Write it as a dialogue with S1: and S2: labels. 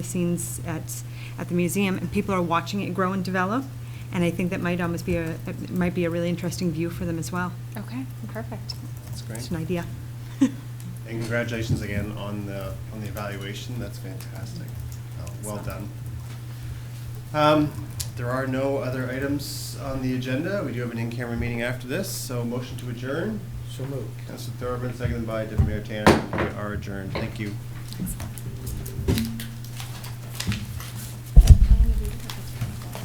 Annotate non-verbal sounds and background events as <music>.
S1: scenes at, at the museum, and people are watching it grow and develop, and I think that might almost be a, it might be a really interesting view for them as well.
S2: Okay, perfect.
S3: That's great.
S1: It's an idea. <laughs>
S3: And congratulations again on the, on the evaluation, that's fantastic. Uh, Well done. Um, There are no other items on the agenda, we do have an in-camera meeting after this, so motion to adjourn.
S4: So moved.
S3: Counselor Thorburn, seconded by Deputy Mayor Tanner, we are adjourned, thank you.